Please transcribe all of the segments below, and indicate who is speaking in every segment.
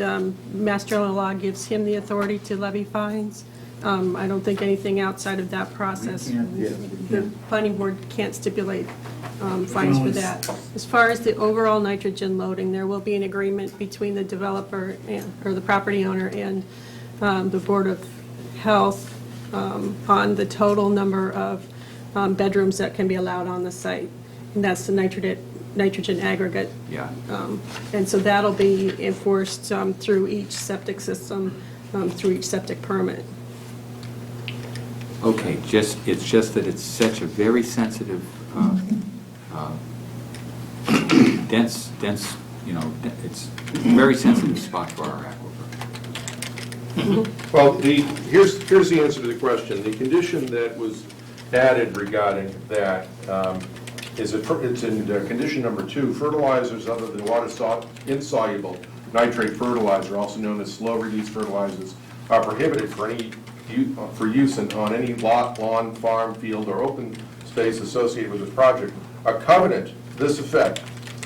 Speaker 1: um, Mass General Law gives him the authority to levy fines. Um, I don't think anything outside of that process.
Speaker 2: Yeah.
Speaker 1: The planning board can't stipulate um, fines for that. As far as the overall nitrogen loading, there will be an agreement between the developer and, or the property owner and um, the Board of Health um, on the total number of um, bedrooms that can be allowed on the site. And that's the nitrogen, nitrogen aggregate Um,
Speaker 3: Yeah.
Speaker 1: and so that'll be enforced um, through each septic system, um, through each septic permit.
Speaker 3: Okay, just, it's just that it's such a very sensitive, uh, uh, dense, dense, you know, de- it's a very sensitive spot for our aquifer.
Speaker 4: Well, the, here's, here's the answer to the question. The condition that was added regarding that um, is, a fer- it's in uh, condition number two, fertilizers other than water sol- insoluble nitrate fertilizer, also known as slow-release fertilizers, are prohibited for any, u- for use in- on any lot, lawn, farm, field, or open space associated with this project. A covenant to this effect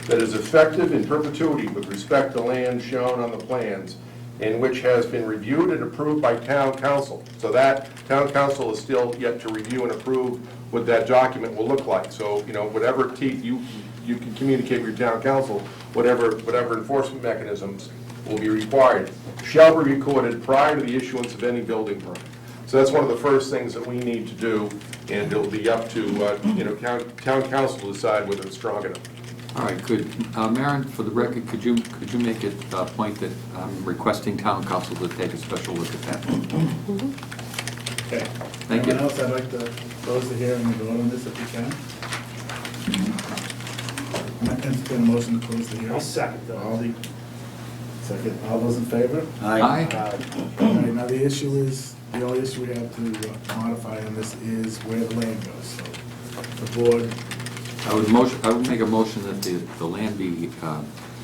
Speaker 4: that is effective in perpetuity with respect to land shown on the plans and which has been reviewed and approved by town council. So that, town council is still yet to review and approve what that document will look like. So, you know, whatever teeth you, you can communicate with your town council, whatever, whatever enforcement mechanisms will be required, shall be recorded prior to the issuance of any building permit. So that's one of the first things that we need to do, and it'll be up to, uh, you know, town, town council to decide whether it's strong enough.
Speaker 3: All right, good. Uh, Maren, for the record, could you, could you make it a point that I'm requesting town council to take a special look at that?
Speaker 2: Okay.
Speaker 3: Thank you.
Speaker 2: Anyone else, I'd like to close the hearing and vote on this if we can. I entertain a motion to close the hearing.
Speaker 5: I'll second that.
Speaker 2: All the, second, all those in favor?
Speaker 3: Aye?
Speaker 2: All right, now the issue is, the only issue we have to uh, modify on this is where the land goes, so the board,
Speaker 3: I would motion, I would make a motion that the, the land be uh,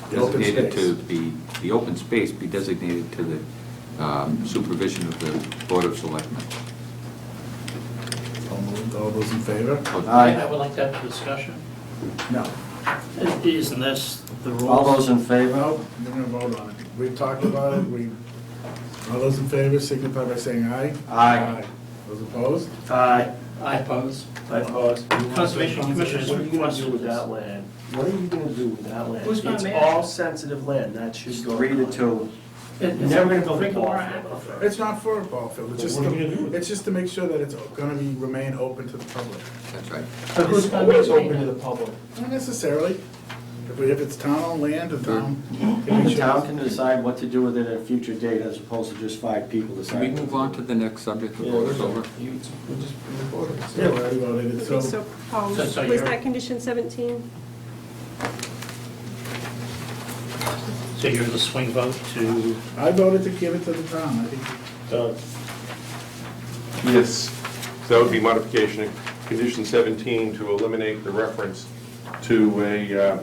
Speaker 2: The open
Speaker 3: designated to
Speaker 2: space.
Speaker 3: be, the open space be designated to the um, supervision of the Board of Selectmen.
Speaker 2: all moved, all those in favor?
Speaker 6: I would like that discussion.
Speaker 2: No.
Speaker 6: Isn't this the rules?
Speaker 7: All those in favor?
Speaker 2: No, we're gonna vote on it. We've talked about it, we, all those in favor signify by saying aye.
Speaker 7: Aye.
Speaker 2: Those opposed?
Speaker 7: Aye.
Speaker 6: I oppose.
Speaker 7: I oppose.
Speaker 6: Conservation Commission is
Speaker 7: What are you gonna do
Speaker 6: requesting
Speaker 7: with
Speaker 6: this.
Speaker 7: that land? What are you gonna do with that land?
Speaker 6: Who's gonna manage
Speaker 7: It's
Speaker 6: it?
Speaker 7: all sensitive land, that should go. Three to two.
Speaker 6: It- it's
Speaker 7: Never gonna build a
Speaker 6: Drink
Speaker 7: ball
Speaker 6: more
Speaker 7: field.
Speaker 6: aquifer.
Speaker 2: It's not for a ball field, it's just,
Speaker 5: What are we gonna do with
Speaker 2: to-
Speaker 5: it?
Speaker 2: it's just to make sure that it's gonna be, remain open to the public.
Speaker 3: That's right.
Speaker 6: But who's
Speaker 7: It's
Speaker 6: gonna
Speaker 7: always
Speaker 6: maintain
Speaker 7: open to
Speaker 6: it?
Speaker 7: the public.
Speaker 2: Not necessarily, if we, if it's town owned land, the town. can make
Speaker 7: The
Speaker 2: sure-
Speaker 7: town can decide what to do with it at a future date as opposed to just five people
Speaker 3: Can we
Speaker 7: deciding.
Speaker 3: move on to the next subject
Speaker 7: Yeah.
Speaker 3: before it's over?
Speaker 2: Yeah, we already voted,
Speaker 1: Okay,
Speaker 2: it,
Speaker 1: so
Speaker 2: so,
Speaker 1: Paul,
Speaker 6: So-
Speaker 1: was
Speaker 6: so you're-
Speaker 1: that condition 17?
Speaker 6: So you're the swing vote to,
Speaker 2: I voted to give it to the town, I think.
Speaker 5: Doug,
Speaker 4: Yes, so that would be modification of condition 17 to eliminate the reference to a, uh,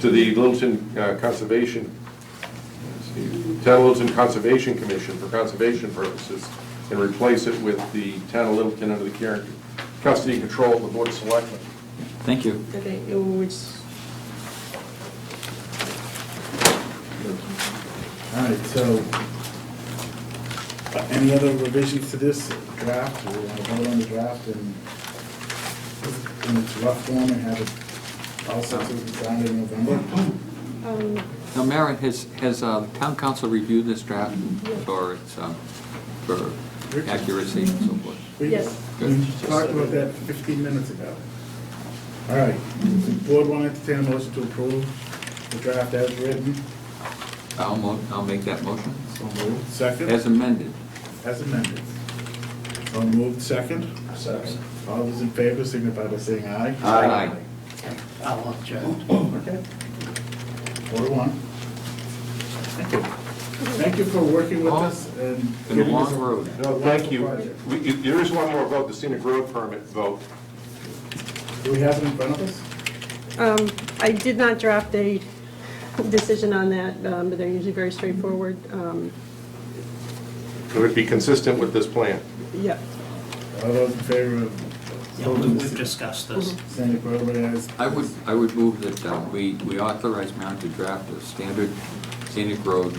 Speaker 4: to the Littleton uh, Conservation, let's see, Town of Littleton Conservation Commission for conservation purposes, and replace it with the Town of Littleton under the care, custody and control of the Board of Selectmen.
Speaker 3: Thank you.
Speaker 1: Okay, oh, which,
Speaker 2: All right, so, uh, any other revisions to this draft, we want to vote on the draft and in its rough form and have it all set to be signed in November?
Speaker 1: um,
Speaker 3: Now, Maren, has, has uh, town council reviewed this draft for its, um, for accuracy and so forth?
Speaker 2: We-
Speaker 1: Yes.
Speaker 2: We talked about that fifteen minutes ago. All right, the board want to entertain a motion to approve the draft as written?
Speaker 3: I'll mo, I'll make that motion.
Speaker 2: So moved. Second,
Speaker 3: As amended.
Speaker 2: as amended. So moved, second.
Speaker 7: Second.
Speaker 2: All those in favor signify by saying aye.
Speaker 7: Aye.
Speaker 6: I'll object.
Speaker 2: Okay. Four to one. Thank you. Thank you for working with us and.
Speaker 3: Been a
Speaker 2: giving us-
Speaker 3: long road.
Speaker 4: No, thank you. We- you- There is one more vote, the scenic road permit vote.
Speaker 2: Do we have it in front of us?
Speaker 1: um, I did not draft a decision on that, um, but they're usually very straightforward. Um,
Speaker 4: It would be consistent with this plan.
Speaker 1: Yep.
Speaker 2: All those in favor of
Speaker 6: Yeah, we-
Speaker 2: building
Speaker 6: We've
Speaker 2: the
Speaker 6: discussed this.
Speaker 2: scenic roadway as.
Speaker 3: I would, I would move that uh, we, we authorize Maren to draft a standard scenic road